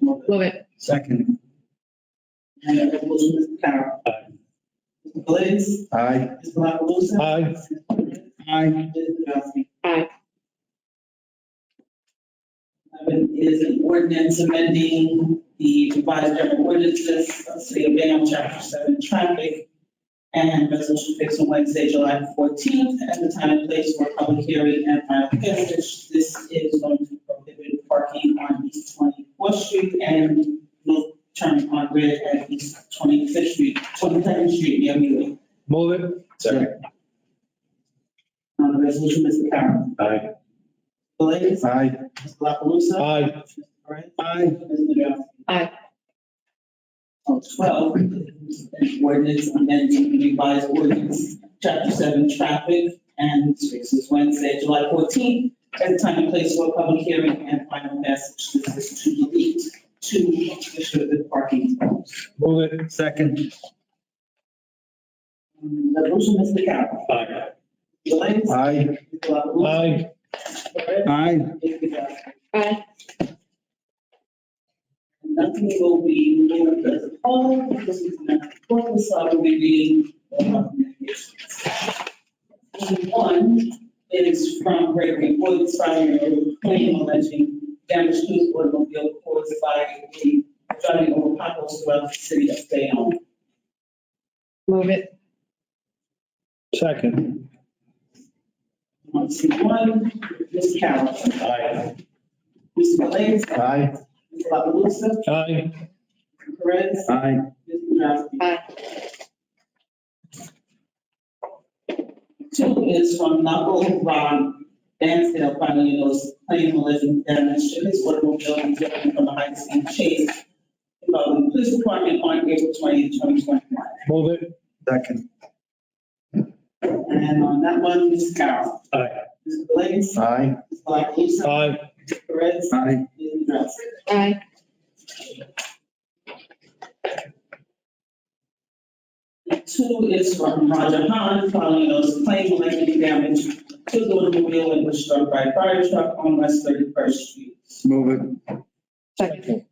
Move it. Second. And that resolution, Mr. Carroll. Aye. Mr. Galais. Aye. Mr. Lapalusa. Aye. Aye. Mr. Dubrasky. Aye. Eleven is an ordinance amending the revised general ordinances of the City of Bayonne, Chapter Seven, Traffic, and resolution fixed on Wednesday, July fourteenth, at the time and place for public hearing and final passage. This is going to prohibit parking on East Twenty-Fourth Street and will turn on red at East Twenty-Fifth Street, Twenty-second Street, near Mewing. Move it. Second. On the resolution, Mr. Carroll. Aye. Galais. Aye. Mr. La Palusa? Aye. Mr. Perez? Aye. Mr. Nadrowski? Aye. Oh, Twelve, an ordinance amending the revised ordinance, chapter seven, traffic, and this is Wednesday, July fourteenth, at the time and place for a public hearing and final passage. This is to delete two prohibited parking zones. Move it. Second. On the Resolution, Mr. Carroll. Aye. Galais. Aye. Mr. La Palusa? Mr. Aye. Perez? Aye. Mr. Nadrowski? Aye. Nothing will be moved as a whole, because it's not important, so I will be reading the recommendations. Item One is from Gregory Woods, filing a claim alleging damage to his automobile caused by the driving over potholes throughout the city of Bayonne. Move it. Second. On C one, Ms. Carroll. Aye. Mr. Galais. Mr. Aye. LaPalooza. Aye. Mr. Perez. Aye. Mr. Duprasky. Aye. Two is from oh, Knuckle Ron Dansdale, filing those claim alleging damage to his automobile and driven from the heights and chase involving the police department on April 20, 2021. Move it. Second. And on that one, Ms. Carroll. Aye. Mr. Galais. Aye. Ms. Blacklusa. Aye. Mr. Perez. Aye. Ms. Nadrowski. Aye. Two is from Roger Hahn, following those claim alleging damage to the automobile and was struck by a fire truck on West Thirty-first Street. Move it. Second.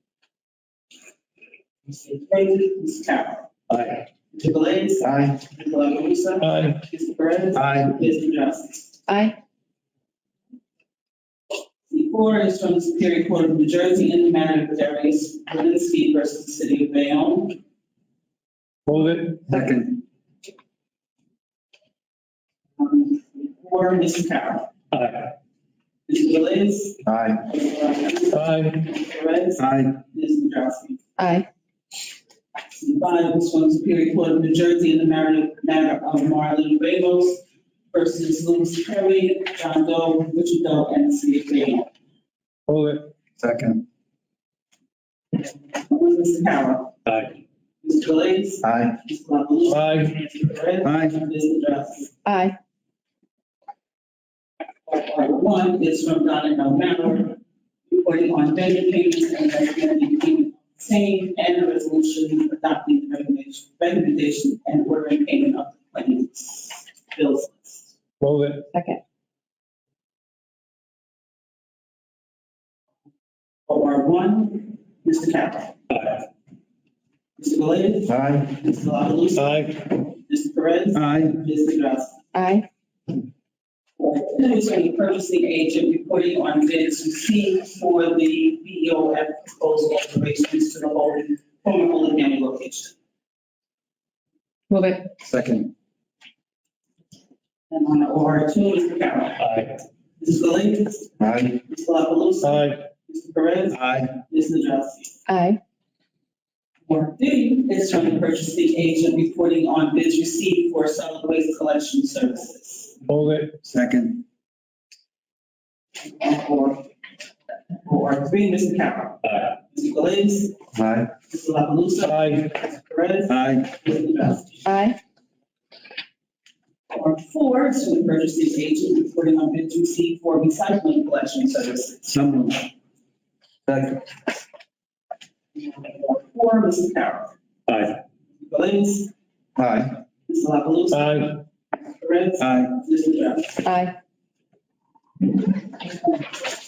Mr. Brady, Ms. Carroll. Aye. Mr. Galais. Aye. Mr. Lapalusa. Aye. Mr. Perez. Aye. Mr. Nadrowski. Aye. C four is from the Superior Court of New Jersey in the matter of Darius Walensky versus the City of Bayonne. Move it. Second. Um, Four, Mr. Carroll. Aye. Mr. Galais. Aye. Mr. Lapalusa. Aye. Mr. Perez. Aye. Mr. Nadrowski. Aye. Five is from Superior Court of New Jersey in the matter matter of Marlon Ramos versus Louis Perry, John Doe, Richard Doe, and the City of Bayonne. Move it. Second. Mr. Carroll. Aye. Mr. Galais. Aye. Mr. La Palusa. Aye. Mr. Perez. Aye. Mr. Duprasky. Aye. Item One is from Donna O'Malley, reporting on vendor payments and recommending payment of the same and a resolution adopting the recommendation- recommendation and ordering payment of the claims. Bills list. Move it. Second. OR one, Mr. Capra. Aye. Mr. Galais. Aye. Mr. La Palusa. Aye. Mr. Perez. Aye. Ms. Nadrowski. Aye. Then is from the purchasing agent reporting on bids received for the BOF proposed alterations to the Holden, former Holden County location. Move it. Second. And on the OR two, Mr. Capra. Aye. Mr. Galais. Aye. Mr. La Palusa. Aye. Mr. Perez. Aye. Ms. Nadrowski. Aye. Or D is from the purchasing agent reporting on bids received for solid waste collection services. Move it. Second. Or, or three, Mr. Carroll. Aye. Mr. Galais, Aye. Mr. La Palusa, Aye. Mr. Perez, Aye. Mr. Nadrowski. Aye. Or four, is from the purchasing agent reporting on bid two C for recycling collection services. Someone. Second. Or four, Mr. Carroll. Aye. Mr. Galais, Aye. Mr. La Palusa, Aye. Mr. Perez, Aye. Mr. Nadrowski. Aye.